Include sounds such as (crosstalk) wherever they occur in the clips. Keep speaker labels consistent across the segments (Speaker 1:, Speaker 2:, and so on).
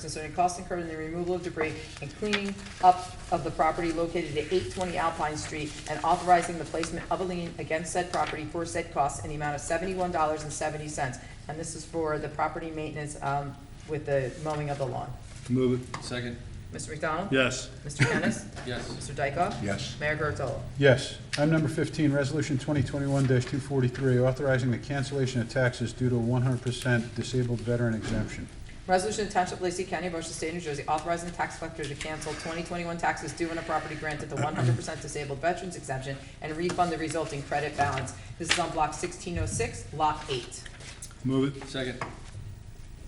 Speaker 1: concerning costs incurred in the removal of debris and cleaning up of the property located at eight twenty Alpine Street and authorizing the placement of a lien against said property for said costs in the amount of seventy-one dollars and seventy cents. And this is for the property maintenance, um, with the mowing of the lawn.
Speaker 2: Move it.
Speaker 3: Second,
Speaker 1: Mr. McDonald?
Speaker 2: Yes.
Speaker 1: Mr. Kennis?
Speaker 3: yes.
Speaker 1: Mr. Dykoff?
Speaker 4: Yes.
Speaker 1: Mayor Kurtolo?
Speaker 4: Yes. Item number 15, Resolution 2021-243, authorizing the cancellation of taxes due to 100% disabled veteran exemption.
Speaker 1: Resolution to Township of Lacey County, Ocean State, New Jersey, authorizing the tax collector to cancel 2021 taxes due on a property granted the 100% disabled veterans exemption and refund the resulting credit balance. This is on Block 1606, Lot 8.
Speaker 2: Move it.
Speaker 3: Second,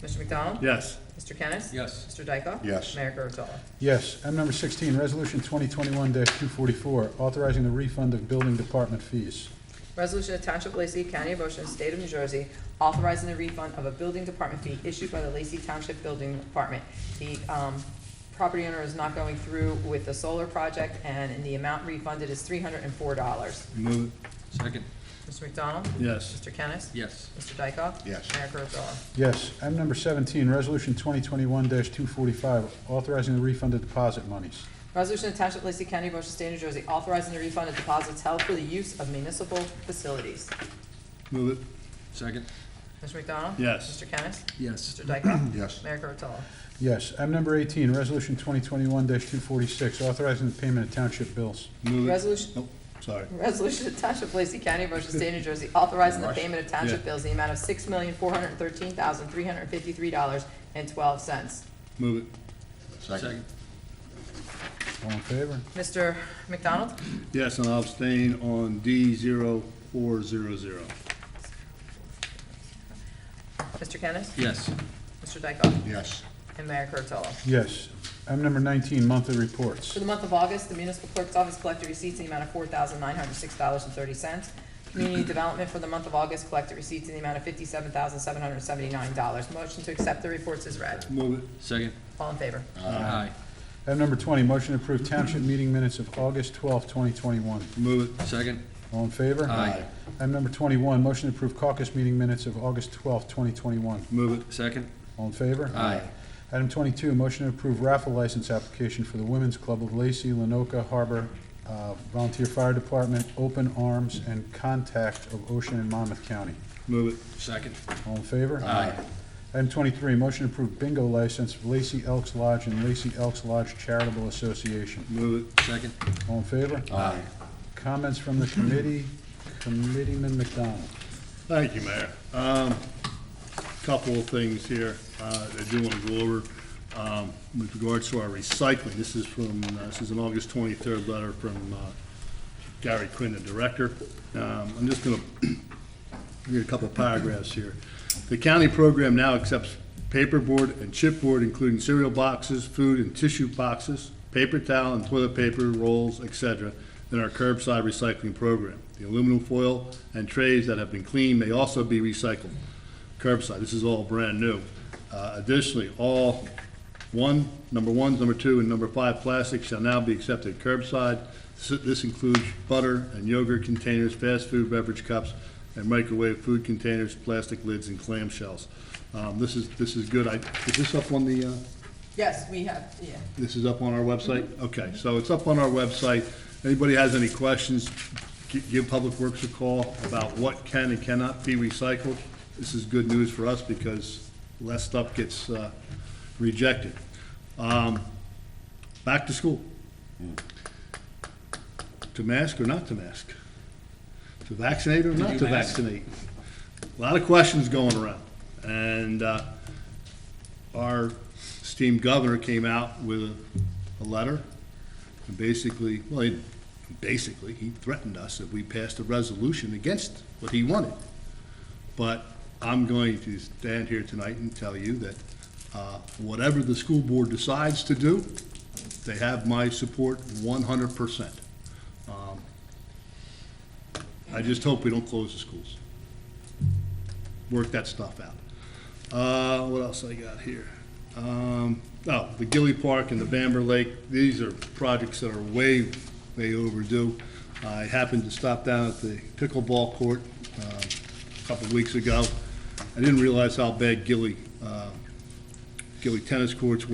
Speaker 1: Mr. McDonald?
Speaker 2: Yes.
Speaker 1: Mr. Kennis?
Speaker 3: yes.
Speaker 1: Mr. Dykoff?
Speaker 4: Yes.
Speaker 1: Mayor Kurtolo?
Speaker 4: Yes. Item number 16, Resolution 2021-244, authorizing the refund of building department fees.
Speaker 1: Resolution of Township of Lacey, County of Ocean, State of New Jersey, authorizing the refund of a building department fee issued by the Lacey Township Building Department. The um, property owner is not going through with the solar project, and the amount refunded is three hundred and four dollars.
Speaker 2: Move
Speaker 3: Second,
Speaker 1: Mr. McDonald?
Speaker 2: it. Yes.
Speaker 1: Mr. Kennis?
Speaker 3: yes.
Speaker 1: Mr. Dykoff?
Speaker 4: Yes.
Speaker 1: Mayor Kurtolo?
Speaker 4: Yes. Item number 17, Resolution 2021-245, authorizing the refund of deposit monies.
Speaker 1: Resolution to Township of Lacey County, Ocean State, New Jersey, authorizing the refund of deposits held for the use of municipal facilities.
Speaker 2: Move it.
Speaker 3: Second,
Speaker 1: Mr. McDonald?
Speaker 2: Yes.
Speaker 1: Mr. Kennis?
Speaker 3: yes.
Speaker 1: Mr. Dykoff?
Speaker 4: Yes.
Speaker 1: Mayor Kurtolo?
Speaker 4: Yes. Item number 18, Resolution 2021-246, authorizing the payment of township bills.
Speaker 2: Move it.
Speaker 1: Resolution,
Speaker 2: Nope, sorry.
Speaker 1: Resolution of Township of Lacey County, Ocean State, New Jersey, authorizing the payment of township
Speaker 2: Yeah.
Speaker 1: bills in the amount of six million, four hundred and thirteen thousand, three hundred and fifty-three dollars and twelve cents.
Speaker 2: Move it.
Speaker 3: Second,
Speaker 4: All in favor?
Speaker 1: Mr. McDonald?
Speaker 2: Yes, and I'll abstain on D zero four zero zero.
Speaker 1: Mr. Kennis?
Speaker 3: yes.
Speaker 1: Mr. Dykoff?
Speaker 4: Yes.
Speaker 1: And Mayor Kurtolo?
Speaker 4: Yes. Item number 19, monthly reports.
Speaker 1: For the month of August, the municipal clerk's office collected receipts in the amount of four thousand nine hundred six dollars and thirty cents. Community development for the month of August collected receipts in the amount of fifty-seven thousand seven hundred seventy-nine dollars. Motion to accept the reports is read.
Speaker 2: Move it.
Speaker 3: Second,
Speaker 1: All in favor?
Speaker 3: aye.
Speaker 4: Item number 20, motion to approve township meeting minutes of August 12, 2021.
Speaker 2: Move it.
Speaker 3: Second,
Speaker 4: All in favor?
Speaker 3: Aye.
Speaker 4: Item number 21, motion to approve caucus meeting minutes of August 12, 2021.
Speaker 2: Move it.
Speaker 3: second,
Speaker 4: All in favor?
Speaker 3: aye.
Speaker 4: Item 22, motion to approve raffle license application for the Women's Club of Lacey, Lenoka Harbor uh, Volunteer Fire Department, Open Arms, and Contact of Ocean and Monmouth County.
Speaker 2: Move it.
Speaker 3: Second,
Speaker 4: All in favor?
Speaker 3: aye.
Speaker 4: Item 23, motion to approve bingo license for Lacey Elks Lodge and Lacey Elks Lodge Charitable Association.
Speaker 2: Move it.
Speaker 3: Second,
Speaker 4: All in favor?
Speaker 3: aye.
Speaker 4: Comments from the committee, Committeeman McDonald.
Speaker 2: Thank you, Mayor. Um, couple of things here, uh, that I do want to go over, um, with regards to our recycling. This is from, uh, this is an August twenty-third letter from, uh, Gary Quinn, the director. Um, I'm just gonna (clears throat) read a couple of paragraphs here. The county program now accepts paperboard and chipboard, including cereal boxes, food and tissue boxes, paper towel and toilet paper rolls, etc., in our curbside recycling program. The aluminum foil and trays that have been cleaned may also be recycled curbside. This is all brand new. Uh, Additionally, all one, number ones, number two, and number five plastics shall now be accepted curbside. So This includes butter and yogurt containers, fast food beverage cups, and microwave food containers, plastic lids, and clamshells. Um, This is, this is good. I, is this up on the, uh,
Speaker 1: Yes, we have, yeah.
Speaker 2: this is up on our website? Okay, so it's up on our website. Anybody has any questions, gi- give Public Works a call about what can and cannot be recycled. This is good news for us because less stuff gets uh, rejected. Um, Back to school. To mask or not to mask? To vaccinate or not
Speaker 3: you
Speaker 2: to
Speaker 3: mask?
Speaker 2: vaccinate? A lot of questions going around. And uh, our esteemed governor came out with a, a letter, and basically, well, he, basically, he threatened us if we passed a resolution against what he wanted. But I'm going to stand here tonight and tell you that, uh, whatever the school board decides to do, they have my support one hundred percent. Um, I just hope we don't close the schools. Work that stuff out. Uh, what else I got here? Um, oh, the Gilly Park and the Bamber Lake, these are projects that are way, way overdue. I happened to stop down at the pickleball court, uh, a couple of weeks ago. I didn't realize how bad Gilly, uh, Gilly Tennis Courts